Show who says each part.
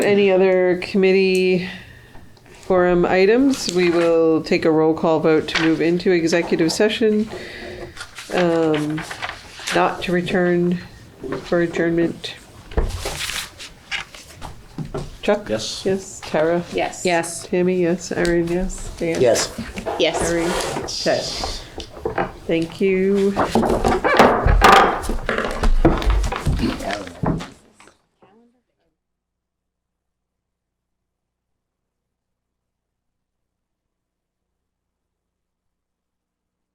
Speaker 1: Any other committee forum items? We will take a roll call vote to move into executive session. Um, Not to return for adjournment. Chuck?
Speaker 2: Yes.
Speaker 1: Yes, Tara?
Speaker 3: Yes.
Speaker 4: Yes.
Speaker 1: Tammy, yes, Erin, yes, Dan?
Speaker 2: Yes.
Speaker 3: Yes.
Speaker 1: Harry? Thank you.